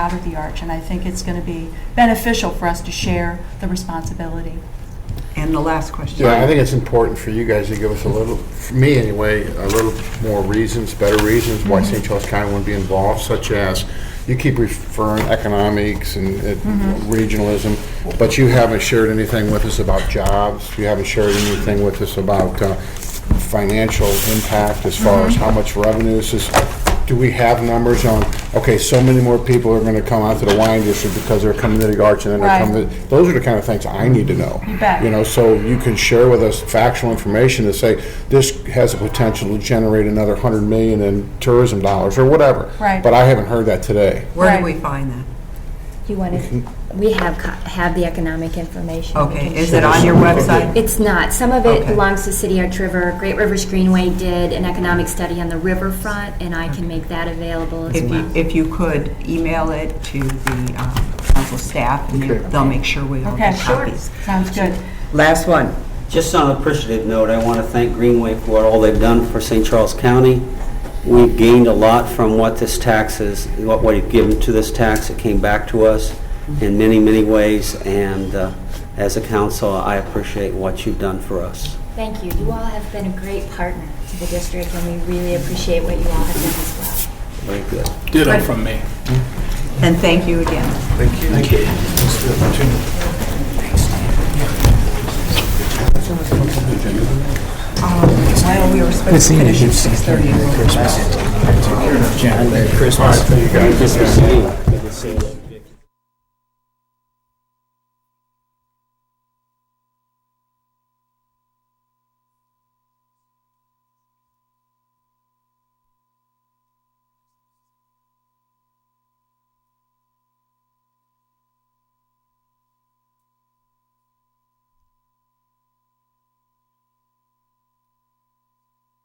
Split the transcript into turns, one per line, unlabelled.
out of the arch, and I think it's going to be beneficial for us to share the responsibility.
And the last question.
Yeah, I think it's important for you guys to give us a little, for me anyway, a little more reasons, better reasons why St. Charles County would be involved, such as, you keep referring economics and uh,
Mm-hmm.
regionalism, but you haven't shared anything with us about jobs, you haven't shared anything with us about uh, financial impact as far
Mm-hmm.
as how much revenue this is. Do we have numbers on, okay, so many more people are gonna come out to the wine district because they're coming to the arch and then they're
Right.
coming to, those are the kind of things I need to know.
You bet.
You know, so you can share with us factual information to say, this has the potential to generate another hundred million in tourism dollars, or whatever.
Right.
But I haven't heard that today.
Where
Right.
do we find that?
Do you want to, we have, co- have the economic information. We
Okay,
can
is
share.
it on your website?
It's not. Some of it
Okay.
belongs to City Arch River. Great Rivers Greenway did an economic study on the riverfront, and I can make that available as
If
well.
you, if you could email it to the um, council staff, and they-
Okay.
they'll make sure we all
Okay,
get copies.
Sounds good.
Last one.
Just on an appreciative note, I want to thank Greenway for all they've done for St. Charles County. We've gained a lot from what this tax is, what we've given to this tax. It came back to us in many, many ways, and uh, as a council, I appreciate what you've done for us.
Thank you. You all have been a great partner to the district, and we really appreciate what you all have done as well.
Very good.
Ditto from me.
And thank you again. Well, Um, we were supposed to finish at 6:30. and we're-
Merry Christmas.
Good to see you. Good to see you.